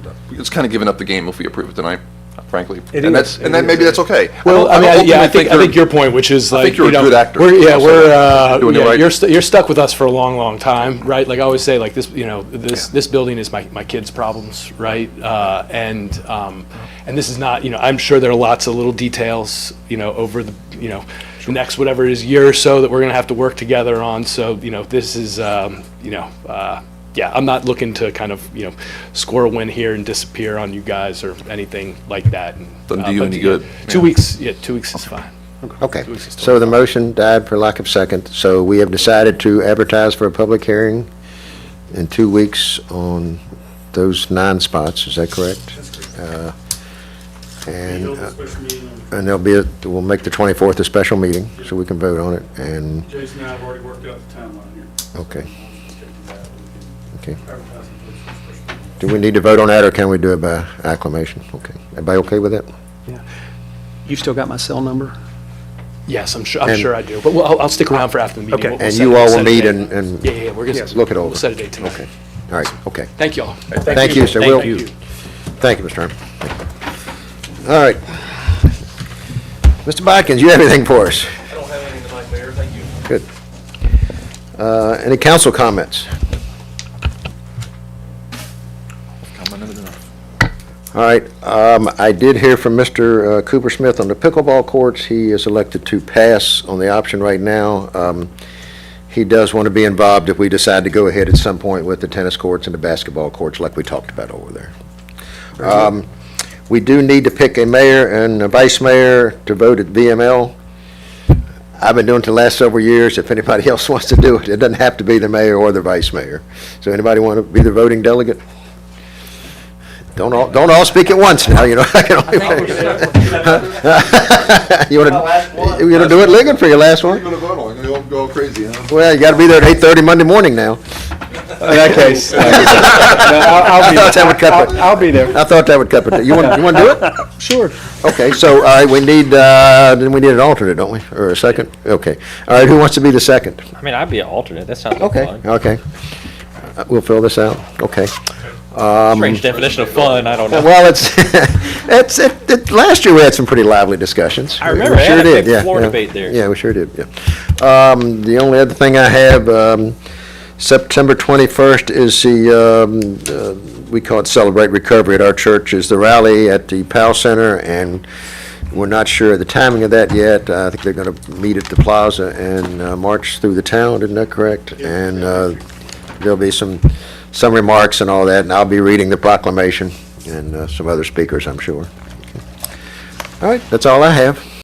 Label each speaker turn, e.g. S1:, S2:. S1: uh, it's kind of giving up the game if we approve it tonight, frankly.
S2: It
S1: And
S2: is.
S1: that's, and then
S2: It
S1: maybe
S2: is.
S1: that's okay. I
S2: Well,
S1: don't-
S2: I mean, I-
S1: don't
S2: yeah, I
S1: ultimately
S2: think, I
S1: they're-
S2: think your point, which is
S1: I
S2: like,
S1: think
S2: you
S1: you're a
S2: know,
S1: good actor.
S2: we're, yeah,
S1: I'll say
S2: we're,
S1: that.
S2: uh,
S1: Doing it
S2: yeah,
S1: right.
S2: you're, st- you're stuck with us for a long, long time, right? Like I always say, like this, you know, this,
S1: Yeah.
S2: this building is my, my kids' problems, right? Uh, and, um, and this is not, you know, I'm sure there are lots of little details, you know, over the, you know, the next whatever it is year or so that we're gonna have to work together on. So, you know, this is, um, you know, uh, yeah, I'm not looking to kind of, you know, score a win here and disappear on you guys or anything like that. And,
S1: Doesn't
S2: uh,
S1: do you
S2: but,
S1: any
S2: yeah,
S1: good.
S2: Two
S1: Yeah.
S2: weeks, yeah, two weeks is fine.
S3: Okay,
S2: Two weeks is
S3: so the motion died for lack of second, so we have decided to advertise for a public hearing in two weeks on those nine spots, is that correct? Uh, And,
S4: Hold a
S3: uh,
S4: special meeting on-
S3: and there'll be, a- we'll make the 24th a special meeting, so we can vote on it, and,
S4: Jason and I have already worked out the timeline here.
S3: okay.
S4: Just checking that. We
S3: Okay.
S4: can advertise it for a special
S3: Do
S4: meeting.
S3: we need to vote on that, or can we do it by acclamation? Okay, everybody okay with that?
S5: You've still got my cell number?
S2: Yes, I'm sure, I'm
S3: And-
S2: sure I do, but we'll- I'll, I'll stick around for after the meeting.
S5: Okay.
S2: We'll- we'll
S3: And
S2: set-
S3: you
S2: we'll
S3: all
S2: set
S3: will
S2: a
S3: meet
S2: date.
S3: and, and,
S2: Yeah, yeah, yeah, we're gonna.
S3: Yes, look it over.
S2: We'll set a date tonight.
S3: okay, all right, okay.
S2: Thank y'all.
S3: Thank you, sir.
S2: Thank
S3: We'll-
S2: you.
S3: Thank you, Mr. Herman. All right. Mr. Bodkins, you have anything for us?
S6: I don't have anything tonight, Mayor, thank you.
S3: Good. Uh, Any council comments? All right, um, I did hear from Mr. uh, Cooper Smith on the pickleball courts. He is elected to pass on the option right now. Um, He does want to be involved if we decide to go ahead at some point with the tennis courts and the basketball courts like we talked about over there. Um, We do need to pick a mayor and a vice mayor to vote at VML. I've been doing it the last several years. If anybody else wants to do it, it doesn't have to be the mayor or the vice mayor. So anybody want to be the voting delegate? Don't all, don't all speak at once now, you know. I can only- You want to, you want to do it Ligon for your last
S1: We're
S3: one?
S1: gonna vote on it, we'll go crazy, huh?
S3: Well, you got to be there at 8:30 Monday morning now.
S5: In that case. I'll
S3: I thought that would cut it.
S5: I'll be there.
S3: I thought that would cut it. You want, you want to do it?
S5: Sure.
S3: Okay, so, all right, we need, uh, then we need an alternate, don't we? Or a second? Okay. All right, who wants to be the second?
S7: I mean, I'd be an alternate. That sounds like
S3: Okay,
S7: fun.
S3: okay. Uh, We'll fill this out. Okay.
S7: Strange definition of fun. I don't know.
S3: Well, it's, it's, it, it, last year we had some pretty lively discussions.
S7: I
S3: We-
S7: remember,
S3: we
S7: I
S3: sure
S7: had a
S3: did,
S7: big
S3: yeah,
S7: floor
S3: yeah.
S7: debate there.
S3: Yeah, we sure did, yeah. Um, the only other thing I have, um, September twenty-first is the, um, uh, we call it Celebrate Recovery at our church, is the rally at the Powell Center, and we're not sure of the timing of that yet. I think they're gonna meet at the plaza and, uh, march through the town, isn't that correct? And, uh, there'll be some, some remarks and all that, and I'll be reading the proclamation and uh, some other speakers, I'm sure. All right, that's all I have.